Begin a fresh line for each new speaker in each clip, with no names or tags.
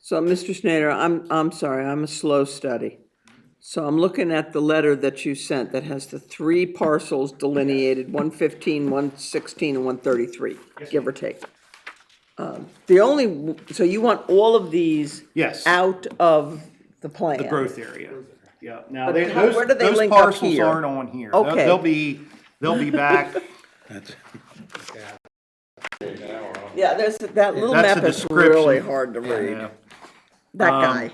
So, Mr. Schneider, I'm, I'm sorry, I'm a slow study. So I'm looking at the letter that you sent that has the three parcels delineated, 115, 116, and 133, give or take. Um, The only, so you want all of these
Yes.
out of the plan?
The growth area. Yeah, now,
But
they-
how-
those,
where do they
those
link up
parcels
here?
aren't on here. They'll-
Okay.
They'll be, they'll be back.
Yeah, there's, that little
That's
map
a
is really
description.
hard to read.
Yeah. Um,
That guy.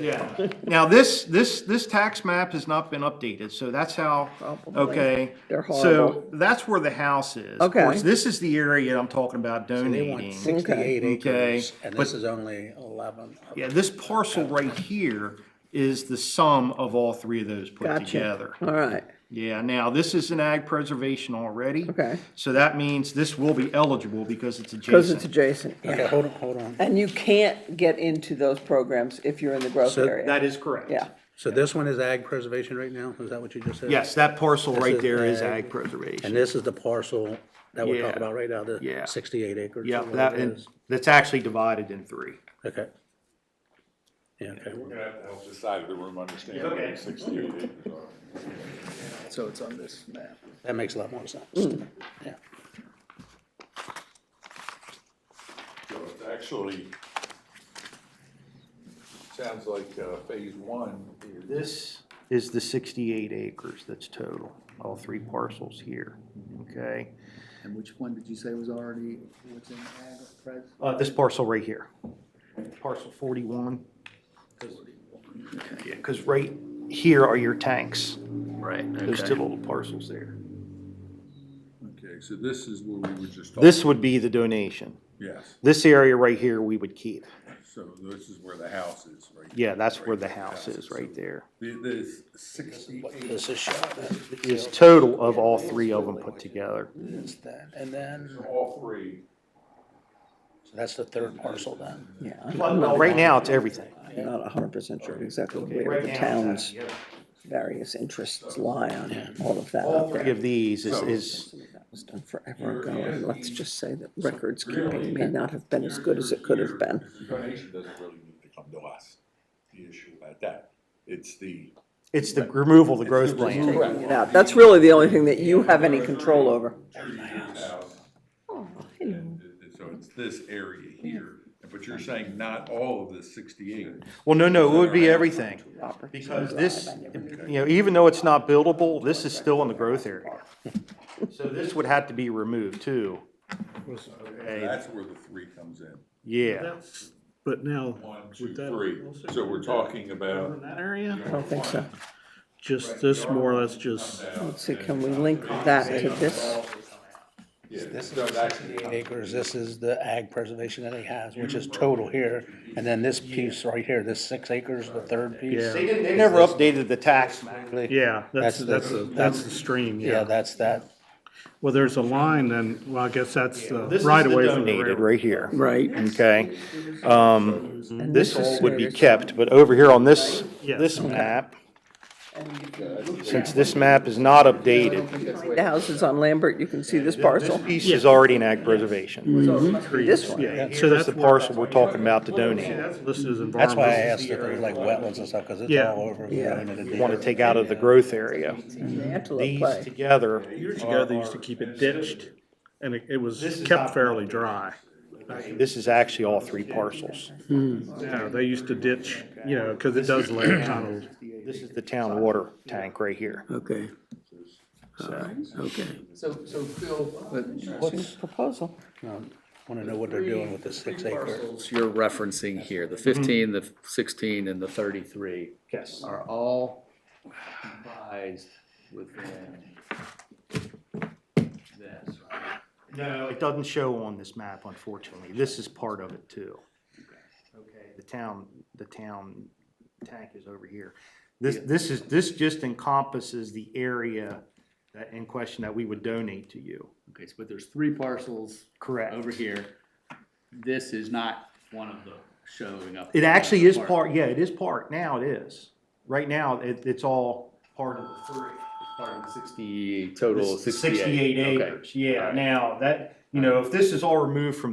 Yeah. Now, this, this, this tax map has not been updated, so that's how, okay.
They're
So
horrible.
that's where the house is. Of
Okay.
course, This is the area I'm talking about
They want
donating.
sixty-eight
Okay.
acres, and this is only eleven.
Yeah, this parcel right here is the sum of all three of those put
Gotcha.
together.
All right,
Yeah, now, this is an ag preservation already.
Okay.
So that means this will be eligible because it's adjacent.
because it's adjacent.
Okay, hold on, hold on.
And you can't get into those programs if you're in the growth
So
area.
That is correct.
Yeah.
So this one is ag preservation right now? Is that what you just said?
Yes, that parcel right
is
there is
ag.
ag
And
preservation.
this is the parcel that we're
Yeah.
talking about right now,
Yeah.
the sixty-eight acres?
Yeah,
or whatever
that,
it
and
is.
that's actually divided in three.
Okay. Yeah, okay.
We're gonna have to help this side of the room understand what the sixty-eight acres are.
So it's on this map. That makes a lot more sense.
Mm.
Yeah.
So it's Actually, sounds like, uh, phase one is,
This is the sixty-eight acres that's total, all three parcels here, okay?
And which one did you say was already, was in ag pres?
Uh, this parcel right here, parcel forty-one. Yeah, cause right here are your tanks,
Right,
those two
okay.
little parcels there.
okay, so this is where we were just talking.
This would be the donation.
Yes,
This area right here, we would keep.
so this is where the house is, right?
Yeah, that's where the house is, right there.
The- This sixty-eight,
This is shot,
Is total of all three of them put together.
that's that, and then,
all three.
so that's the third parcel then.
Yeah,
Well, no, right now, it's everything.
I'm not hundred percent sure exactly where
uh,
the town's various interests lie on all of that
All
out
three
there.
of these is,
So-
is,
Some of That was done forever ago, and let's just say that records keeping may not have been as good as it could have been.
The donation doesn't really need to come to us, the issue about that. It's the.
it's the removal of the growth plan.
Correct.
Taking it out. That's really the only thing that you have any control over.
And it- So it's this area here, but you're saying not all of this sixty-eight.
Well, no, no, it would be everything. Because this, you know, even though it's not buildable, this is still in the growth area. So this would have to be removed too. Okay,
That's where the three comes in.
yeah.
But now,
One, two,
would that
three.
also
So we're talking
cover
about.
that area?
I don't think so.
Just this more or less just,
uh,
Let's see, can we link that to this?
Yeah,
This
so
is
that's-
sixty-eight acres, this is the ag preservation that he has, which is total here, and then this piece right here, this six acres, the third piece.
They didn't, they never updated the tax map.
yeah,
That's
that's, that's,
the-
a- that's the stream,
Yeah,
yeah.
that's that,
Well, there's a line then, well, I guess that's the
This is
right
the
away from the
donated
railroad.
right here.
Right.
Okay, um,
And
this
is
would
where
be
it's-
kept, but over here on this,
Yes.
this map, since this map is not updated,
The houses on Lambert, you can see this
this
parcel.
piece is already in ag preservation.
So it must be this one.
Yeah, so
Here's
that's
the
where-
parcel we're talking about to
see,
donate.
that's listed as environmental.
that's why I asked if there's like wetlands and stuff, cause it's
Yeah.
all over.
Yeah.
Want to take out of the growth area.
The
Mm-hmm.
Antelope
These
Play.
together,
Years ago, they used to keep it ditched and it, it was kept fairly dry.
this is actually all three parcels.
Yeah, they used to ditch, you know, cause it does lay kind of
This is the town water tank right here.
Okay,
So
okay.
So, so Phil, but
What's,
Proposal.
wanna know what they're doing with the six acre.
parcels
You're referencing here,
Mm-hmm.
the fifteen, the sixteen, and the thirty-three
Yes.
are all comprised within this, right?
No, it doesn't show on this map, unfortunately. This is part of it too. Okay, the town, the town tank is over here. This, this is, this just encompasses the area that, in question that we would donate to you.
Okay, so but there's three parcels
Correct.
over here. This is not one of the showing up.
It actually is part, yeah, it is part. Now it is. Right now, it, it's all part of the three.
Part of the Sixty, total
This-
sixty-eight.
Sixty-eight
Okay.
acres, yeah. Now, that, you know, if this is all removed from